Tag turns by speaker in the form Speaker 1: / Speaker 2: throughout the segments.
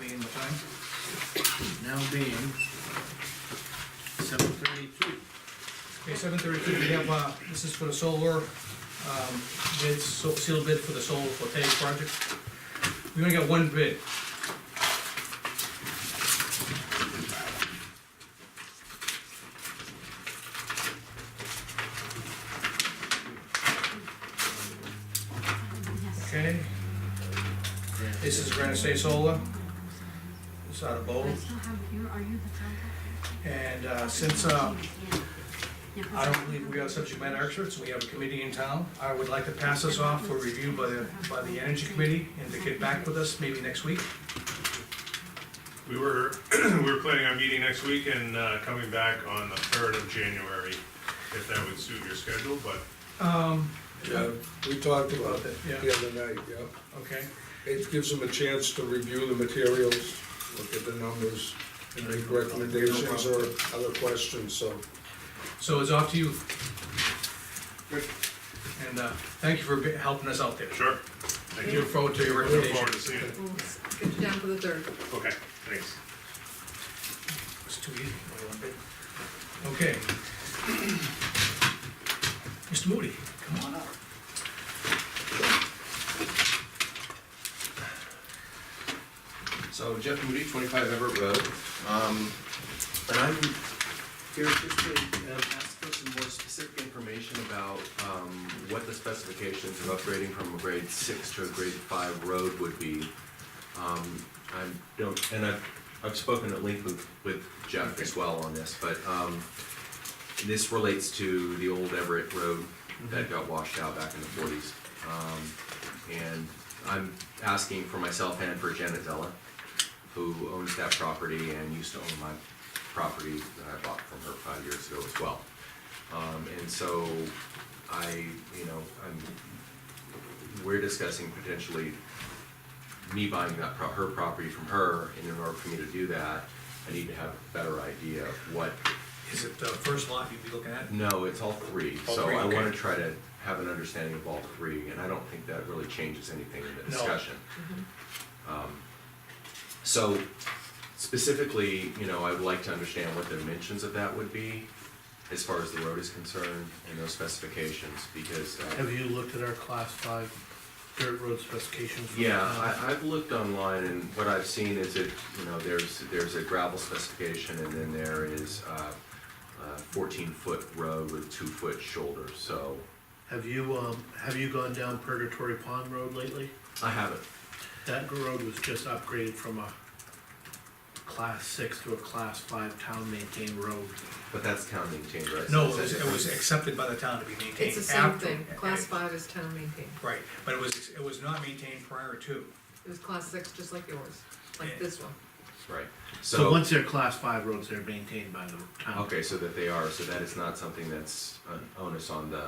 Speaker 1: being what time? Now being seven thirty-two.
Speaker 2: Okay, seven thirty-two, we have, uh, this is for the solar, um, bids, so- sealed bid for the solar voltaic project. We only got one bid. Okay, this is Granite State Solar, it's out of
Speaker 3: I
Speaker 2: Bold,
Speaker 3: still have, you, are you the
Speaker 2: and, uh,
Speaker 3: contact?
Speaker 2: since, uh,
Speaker 3: Yeah, 'cause
Speaker 2: I don't believe we are subject matter experts, we have a committee in town. I would like to pass this off for review by the, by the Energy Committee and to get back with us maybe next week.
Speaker 4: We were, we were planning on meeting next week and uh, coming back on the third of January, if that would suit your schedule, but
Speaker 2: Um,
Speaker 5: Yeah, we talked about
Speaker 2: about that,
Speaker 5: it
Speaker 2: yeah,
Speaker 5: the other night, yeah.
Speaker 2: okay,
Speaker 5: It gives them a chance to review the materials, look at the numbers, and make recommendations or other questions, so.
Speaker 2: so it's off to you. And, uh, thank you for be- helping us out there.
Speaker 4: sure. Thank
Speaker 2: Look
Speaker 4: you.
Speaker 2: forward to your
Speaker 4: Look forward
Speaker 2: recommendation.
Speaker 4: to seeing it.
Speaker 6: We'll get you down for the third.
Speaker 4: Okay, thanks.
Speaker 2: It's too easy, only one bid. Okay. Mr. Moody, come on up.
Speaker 7: So Jeff Moody, twenty-five Everett Road. Um, and I'm here just to um, ask for some more specific information about, um, what the specifications of upgrading from a grade six to a grade five road would be. Um, I don't, and I've, I've spoken at length with, with Jeff as well on this, but, um, this relates to the old Everett Road that got washed out back in the forties. Um, and I'm asking for myself and for Janet Zella, who owns that property and used to own my property that I bought from her five years ago as well. Um, and so I, you know, I'm, we're discussing potentially me buying that, pro- her property from her, and in order for me to do that, I need to have a better idea of what
Speaker 2: Is it the first lot you'd be looking at?
Speaker 7: no, it's all three,
Speaker 2: All
Speaker 7: so
Speaker 2: three,
Speaker 7: I
Speaker 2: okay.
Speaker 7: wanna try to have an understanding of all three, and I don't think that really changes anything in the
Speaker 2: No.
Speaker 7: discussion. Um, So specifically, you know, I would like to understand what the dimensions of that would be as far as the road is concerned and those specifications, because, uh,
Speaker 8: Have you looked at our class five dirt road specifications? Uh, for
Speaker 7: yeah,
Speaker 8: the town?
Speaker 7: I, I've looked online and what I've seen is it, you know, there's, there's a gravel specification and then there is, uh, a fourteen-foot road with two-foot shoulder, so
Speaker 8: Have you, um, have you gone down Purgatory Pond Road lately?
Speaker 7: I haven't
Speaker 8: That road was just upgraded from a class six to a class five town maintained road.
Speaker 7: But that's town maintained, right?
Speaker 2: No,
Speaker 7: So
Speaker 2: it was,
Speaker 7: that's
Speaker 2: it was
Speaker 7: different.
Speaker 2: accepted by the town to be maintained
Speaker 6: It's the same
Speaker 2: after-
Speaker 6: thing, class five is town maintained,
Speaker 2: Right, but it was, it was not maintained prior to.
Speaker 6: it was class six, just like yours,
Speaker 2: Yeah.
Speaker 6: like this one.
Speaker 7: Right,
Speaker 8: So
Speaker 7: so,
Speaker 8: once they're class five roads, they're maintained by the town.
Speaker 7: okay, so that they are, so that is not something that's an onus on the,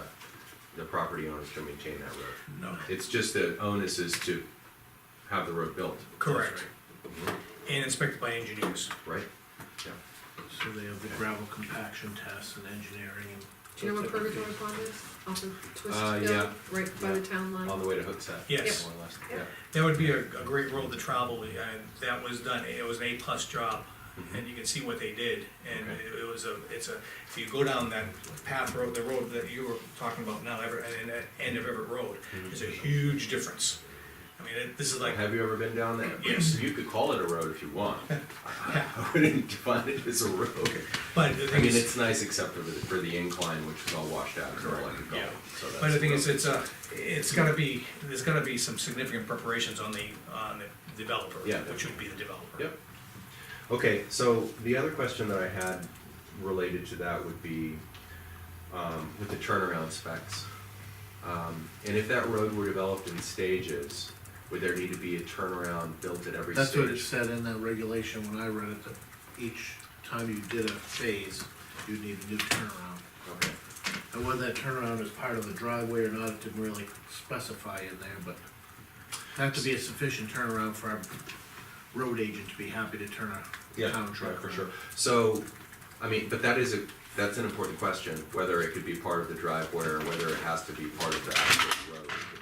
Speaker 7: the property owners to maintain that road.
Speaker 2: No.
Speaker 7: It's just the onus is to have the road built,
Speaker 2: Correct.
Speaker 7: Mhm.
Speaker 2: And inspected by engineers.
Speaker 7: right?
Speaker 8: So they have the gravel compaction tests and engineering and.
Speaker 6: Do you know where Purgatory Pond is? Off of Twist
Speaker 7: Uh,
Speaker 6: Hill,
Speaker 7: yeah.
Speaker 6: right by the town
Speaker 7: On
Speaker 6: line?
Speaker 7: the way to Hooksett.
Speaker 2: Yes.
Speaker 7: More or less,
Speaker 6: Yep.
Speaker 7: yeah.
Speaker 2: That would be a, a great road to travel, and that was done, it was an A-plus job, and you can see what they did, and
Speaker 7: Mm-hmm. Okay.
Speaker 2: it- it was a, it's a, if you go down that path road, the road that you were talking about now, Everett, and at end of Everett Road,
Speaker 7: Mm-hmm.
Speaker 2: there's a huge difference. I mean, it- this is like,
Speaker 7: Have you ever been down there?
Speaker 2: Yes.
Speaker 7: You could call it a road if you want. I wouldn't define it as a road.
Speaker 2: but the
Speaker 7: I
Speaker 2: thing
Speaker 7: mean,
Speaker 2: is,
Speaker 7: it's nice except for the, for the incline, which is all washed out, it's all like a
Speaker 2: yeah.
Speaker 7: golf. so that's.
Speaker 2: but the thing
Speaker 7: a
Speaker 2: is,
Speaker 7: road.
Speaker 2: it's a, it's gotta be, there's gotta be some significant preparations on the, on the developer,
Speaker 7: Yeah.
Speaker 2: which would be the developer.
Speaker 7: Yep. Okay, so the other question that I had related to that would be um, with the turnaround specs. Um, And if that road were developed in stages, would there need to be a turnaround built at every
Speaker 8: That's what it
Speaker 7: stage?
Speaker 8: said in that regulation when I read it, that each time you did a phase, you'd need a new turnaround.
Speaker 7: Okay,
Speaker 8: And whether that turnaround is part of the driveway or not, it didn't really specify in there, but that could be a sufficient turnaround for our road agent to be happy to turn a
Speaker 7: Yeah,
Speaker 8: town truck.
Speaker 7: right, for
Speaker 8: around.
Speaker 7: sure. So, I mean, but that is a, that's an important question, whether it could be part of the driveway or whether it has to be part of the actual road